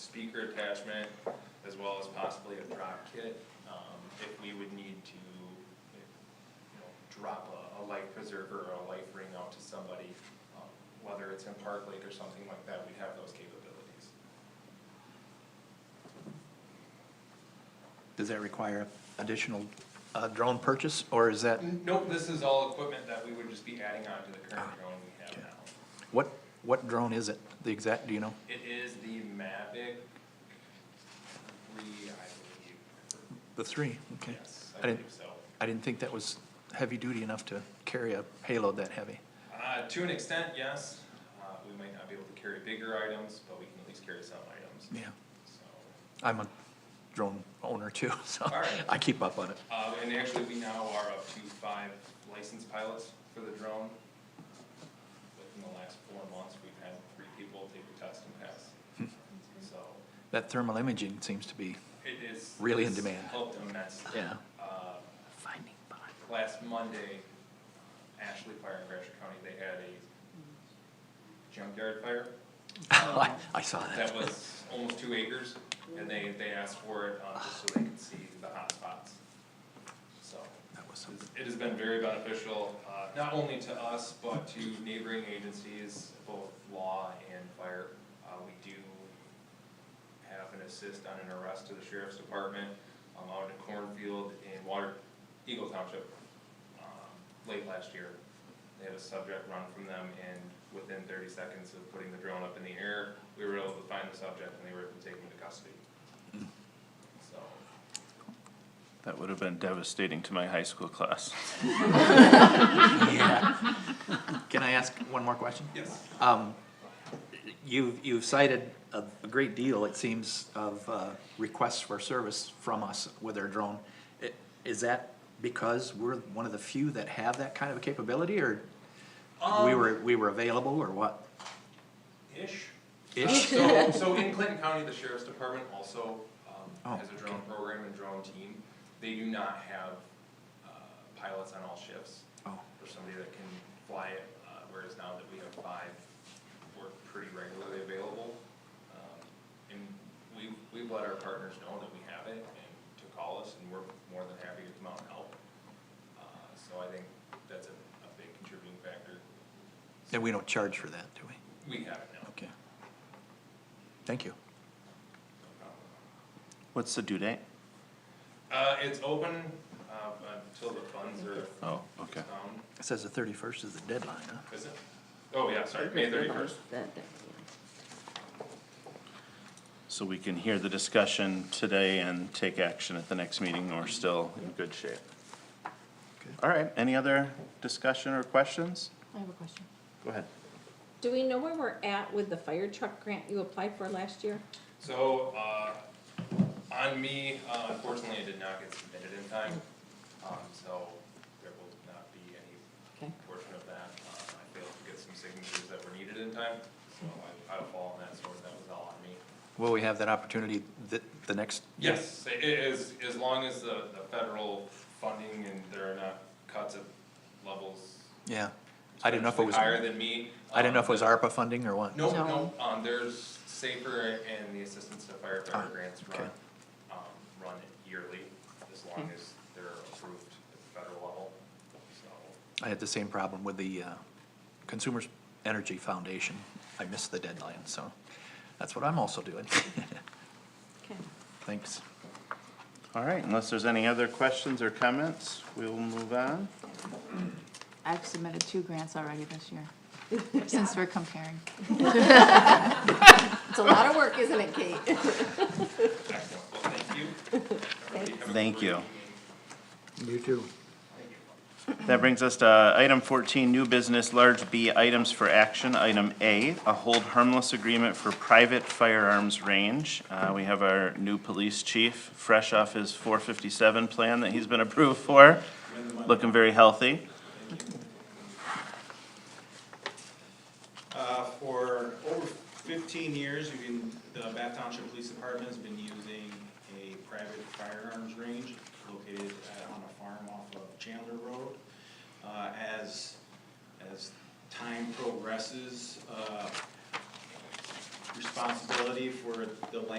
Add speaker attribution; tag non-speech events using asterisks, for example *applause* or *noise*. Speaker 1: speaker attachment, as well as possibly a drop kit, um, if we would need to, you know, drop a, a life preserver or a life ring out to somebody, um, whether it's in Park Lake or something like that, we'd have those capabilities.
Speaker 2: Does that require additional uh, drone purchase, or is that,
Speaker 1: Nope, this is all equipment that we would just be adding on to the current drone we have
Speaker 2: Okay.
Speaker 1: now.
Speaker 2: what, what drone is it? The exact, do you know?
Speaker 1: It is the Mavic three, I
Speaker 2: The three, okay.
Speaker 1: believe, yes,
Speaker 2: I
Speaker 1: I
Speaker 2: didn't,
Speaker 1: believe so.
Speaker 2: I didn't think that was heavy-duty enough to carry a payload that heavy.
Speaker 1: Uh, to an extent, yes, uh, we might not be able to carry bigger items, but we can at least carry some items,
Speaker 2: Yeah,
Speaker 1: so.
Speaker 2: I'm a drone owner too, *laughs* so
Speaker 1: All right.
Speaker 2: I keep up on it.
Speaker 1: Uh, and actually, we now are up to five licensed pilots for the drone. Within the last four months, we've had three people take the test and pass, so
Speaker 2: That thermal imaging seems to be,
Speaker 1: it is.
Speaker 2: Really in
Speaker 1: it's
Speaker 2: demand.
Speaker 1: Helped immensely.
Speaker 2: yeah.
Speaker 1: Uh,
Speaker 2: Finding
Speaker 1: last Monday, Ashley Fire in Gratiot County, they had a junkyard fire
Speaker 2: I, *laughs* I saw that.
Speaker 1: that was almost two acres, and they, they asked for it, uh, just so they could see the hot spots. So,
Speaker 2: That was something.
Speaker 1: it has been very beneficial, uh, not only to us, but to neighboring agencies, both law and fire. Uh, we do have an assist on an arrest to the sheriff's department, um, out in Cornfield in Water, Eagle Township, um, late last year. They had a subject run from them, and within thirty seconds of putting the drone up in the air, we were able to find the subject, and they were able to take him into custody. So,
Speaker 3: That would have been devastating to my high school class.
Speaker 2: Yeah. *laughs* Can I ask one more question?
Speaker 1: yes.
Speaker 2: Um, you've, you've cited a, a great deal, it seems, of, uh, requests for service from us with our drone. I- Is that because we're one of the few that have that kind of a capability, or we
Speaker 1: Um,
Speaker 2: were, we were available, or what?
Speaker 1: Ish.
Speaker 2: Ish?
Speaker 1: So, so in Clinton County, the sheriff's department also,
Speaker 2: Oh,
Speaker 1: um, has a drone
Speaker 2: okay.
Speaker 1: program and drone team. They do not have, uh, pilots on all shifts
Speaker 2: Oh,
Speaker 1: for somebody that can fly it, uh, whereas now that we have five, we're pretty regularly available. Um, And we, we let our partners know that we have it and to call us and we're more than happy to come out and help. Uh, So I think that's a, a big contributing factor.
Speaker 2: and we don't charge for that, do we?
Speaker 1: We have it now.
Speaker 2: Okay. Thank you.
Speaker 1: Um,
Speaker 3: What's the due date?
Speaker 1: Uh, it's open, uh, until the funds are
Speaker 3: Oh, okay.
Speaker 1: found,
Speaker 2: It says the thirty-first is the deadline, huh?
Speaker 1: is it? Oh, yeah, sorry, May thirty-first.
Speaker 4: That- that-
Speaker 3: So we can hear the discussion today and take action at the next meeting, we're still in good shape. All right, any other discussion or questions?
Speaker 4: I have a question.
Speaker 3: Go ahead.
Speaker 4: Do we know where we're at with the fire truck grant you applied for last year?
Speaker 1: So, uh, on me, uh, unfortunately, it did not get submitted in time, um, so there will not be any
Speaker 4: Okay,
Speaker 1: portion of that. Uh, I failed to get some signatures that were needed in time, so I, I fall on that sword, that was all on me.
Speaker 2: Will we have that opportunity the, the next?
Speaker 1: Yes, it is, as long as the, the federal funding and there are not cuts at levels
Speaker 2: Yeah. I didn't know if it was,
Speaker 1: Higher
Speaker 2: I
Speaker 1: than me. um,
Speaker 2: didn't know if it was ARPA funding or what.
Speaker 1: No,
Speaker 4: No.
Speaker 1: no, um, there's Safer and the Assistance to
Speaker 2: Ah,
Speaker 1: Firefighter Grants run,
Speaker 2: okay.
Speaker 1: um, run yearly, as long as they're approved at the federal level, so.
Speaker 2: I had the same problem with the uh, Consumers Energy Foundation. I missed the deadline, so that's what I'm also doing. *laughs*
Speaker 4: okay.
Speaker 2: Thanks.
Speaker 3: All right, unless there's any other questions or comments, we'll move on.
Speaker 5: I've submitted two grants already this year, since we're comparing.
Speaker 4: It's a lot of work, isn't it, Kate?
Speaker 1: Excellent, well, thank you. Everybody have a
Speaker 3: Thank
Speaker 1: great
Speaker 3: you.
Speaker 1: evening.
Speaker 2: You too.
Speaker 3: That brings us to item fourteen, new business, large B items for action. Item A, a hold harmless agreement for private firearms range. Uh, we have our new police chief, fresh off his four fifty-seven plan that he's been approved for, looking very healthy.
Speaker 6: Uh, for over fifteen years, you can, the Bath Township Police Department has been using a private firearms range located uh, on a farm off of Chandler Road. Uh, as, as time progresses, uh, responsibility for the land.